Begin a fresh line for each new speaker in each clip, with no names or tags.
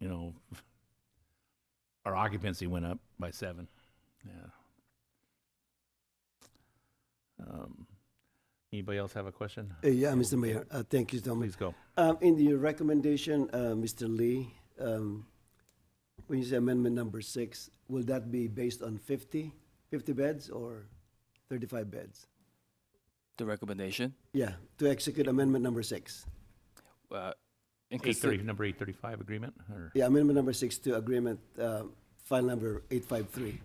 you know, our occupancy went up by seven. Yeah. Um, Anybody else have a question?
Uh, Yeah, Mr. Mayor, uh, thank you so much.
Please go.
Um, In the recommendation, uh, Mr. Lee, um, when you say amendment number six, will that be based on 50, 50 beds or 35 beds?
The recommendation?
Yeah, to execute amendment number six.
Uh, in
Eight thirty,
consi-
number eight thirty-five agreement, or,
Yeah, amendment number six to agreement, uh, file number 853.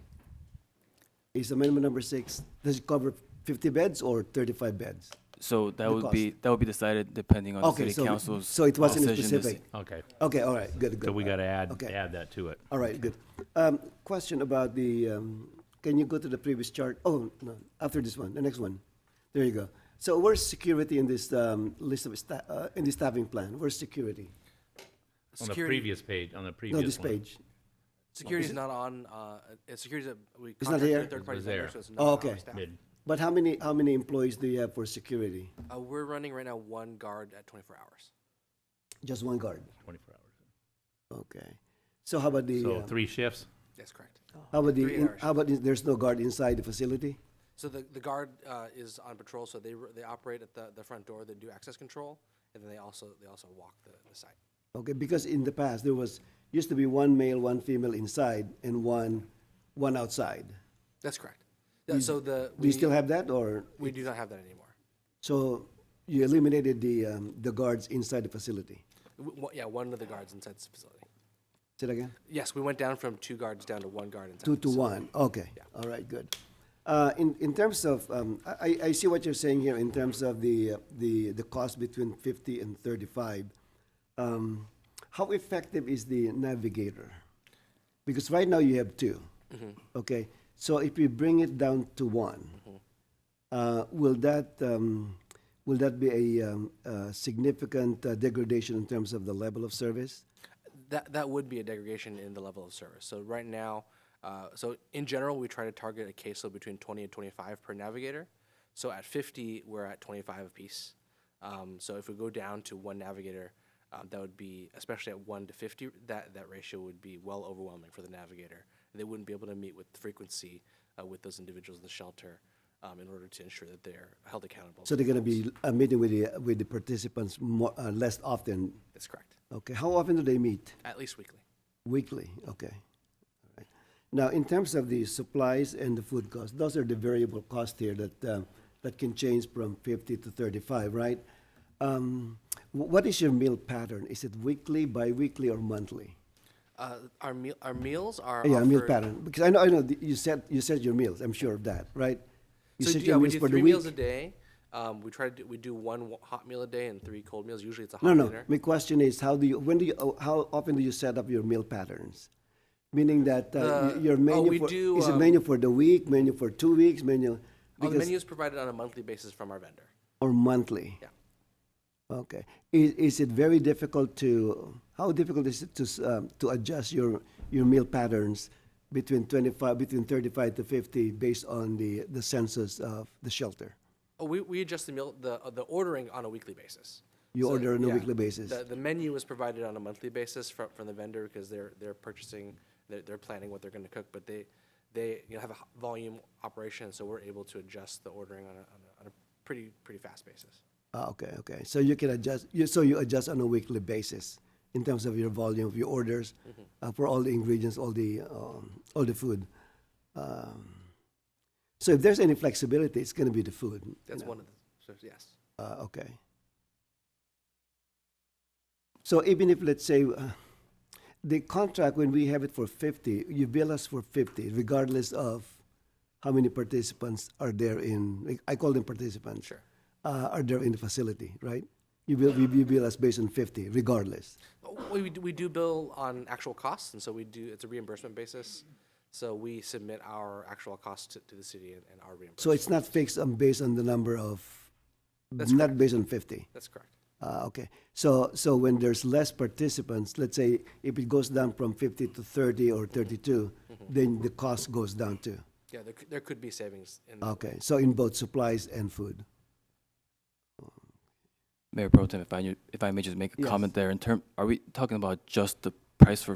Is amendment number six, does it cover 50 beds or 35 beds?
so that
the
would be, that would be decided depending on the
Okay,
Uh, city
so,
council's.
so it wasn't
decision to
specific.
s-
okay,
Okay, all right, good, good.
so we gotta add,
Okay.
add that to it.
All right, good. Um, Question about the, um, can you go to the previous chart? Oh, no, after this one, the next one. There you go. So where's security in this um, list of, sta- uh, in the staffing plan? Where's security?
On the previous page, on the previous
No,
one.
this page.
Security is not on, uh, uh, security is, a- we
not
contract with
here?
a third party
It's
vendor,
there.
so it's not
Oh,
on
okay.
our staff.
Mid,
But how many, how many employees do you have for security?
Uh, we're running right now one guard at twenty-four hours.
Just one guard?
twenty-four hours.
Okay. So how about the,
So
uh,
three shifts,
That's correct.
how about the,
three
in-
hours.
how about the- there's no guard inside the facility?
So the, the guard, uh, is on patrol, so they, r- they operate at the, the front door, they do access control, and then they also, they also walk the, the site.
Okay, because in the past, there was, used to be one male, one female inside and one, one outside.
That's correct. Yeah, so the.
Do
we-
you still have that or?
We do not have that anymore.
So you eliminated the, um, the guards inside the facility.
W- w- Yeah, one of the guards inside the facility.
Say that again?
Yes, we went down from two guards down to one guard inside.
Two
the
to
facility.
one, okay. All right, good. Uh, in, in terms of, um, I, I- I see what you're saying here in terms of the, uh, the, the cost between fifty and thirty-five. Um, how effective is the navigator? Because right now you have 2 Okay, so if you bring it down to one, uh, will that, um, will that be a, um, uh significant uh, degradation in terms of the level of service?
That, that would be a degradation in the level of service. So right now, uh, so in general, we try to target a caseload between 20 and 25 per navigator. So at 50, we're at 25 apiece. Um, so if we go down to one navigator, um, that would be, especially at 1 to 50, that, that ratio would be well overwhelming for the navigator. They wouldn't be able to meet with the frequency uh, with those individuals in the shelter um, in order to ensure that they're held accountable.
So
for
they're going to
themselves.
be uh, meeting with the, with the participants more, uh, less often.
That's correct.
Okay, how often do they meet?
At least weekly.
Weekly, okay. All right. Now, in terms of the supplies and the food costs, those are the variable costs here that, um, that can change from 50 to 35, right? Um, wh- What is your meal pattern? Is it weekly, bi-weekly, or monthly?
Uh, our, meal, our meals are
Oh, Yeah, meal
offered-
pattern, because I know, I know, the- you set, you set your meals, I'm sure of that, right? You
So
set
do-
your
yeah, we
meals
do
for the
three meals a
week.
day. Um, we try to do, we do one wa- hot meal a day and three cold meals. Usually it's a hot
No, no.
dinner.
My question is, how do you, when do you, oh, how often do you set up your meal patterns? Meaning that uh, y-
The-
your
oh,
menu
we
for,
do,
is it
um,
menu for the week, menu for two weeks, menu?
Oh, the
because-
menu is provided on a monthly basis from our vendor.
Or monthly?
Yeah.
Okay. Is, is it very difficult to, how difficult is it to, s- um, to adjust your, your meal patterns between twenty-five, between thirty-five to fifty based on the, the census of the shelter?
Oh, we, we adjust the meal the uh, the ordering on a weekly basis.
You order on a
yeah.
weekly basis?
The, the menu is provided on a monthly basis from, from the vendor because they're they're purchasing they're, they're planning what they're going to cook, but they they you know, have a h- volume operation, so we're able to adjust the ordering on a, on a, on a pretty pretty fast basis.
Ah, okay, okay. So you can adjust, you, so you adjust on a weekly basis in terms of your volume of your orders uh, for all the ingredients, all the, um, all the food. Um, so if there's any flexibility, it's going to be the food. you
That's
know.
one of the so yes.
Uh, okay. So even if, let's say, uh, the contract, when we have it for 50, you bill us for 50, regardless of how many participants are there in, like, I call them participants.
Sure.
Uh, are there in the facility, right? You bill, you you bill us based on 50, regardless.
We, we do- we do bill on actual costs, and so we do, it's a reimbursement basis. So we submit our actual costs to, to the city and, and our reimbursement.
So it's not fixed on, based on the number of,
That's
not based on 50.
That's correct.
Ah, okay. So, so when there's less participants, let's say if it goes down from 50 to 30 or 32, then the cost goes down too.
Yeah, there, cou- there could be savings in.
Okay. So in both supplies and food.
Mayor Pro Tem, if I, knew- if I may just make a
Yes.
comment there, in term, are we talking about just the price for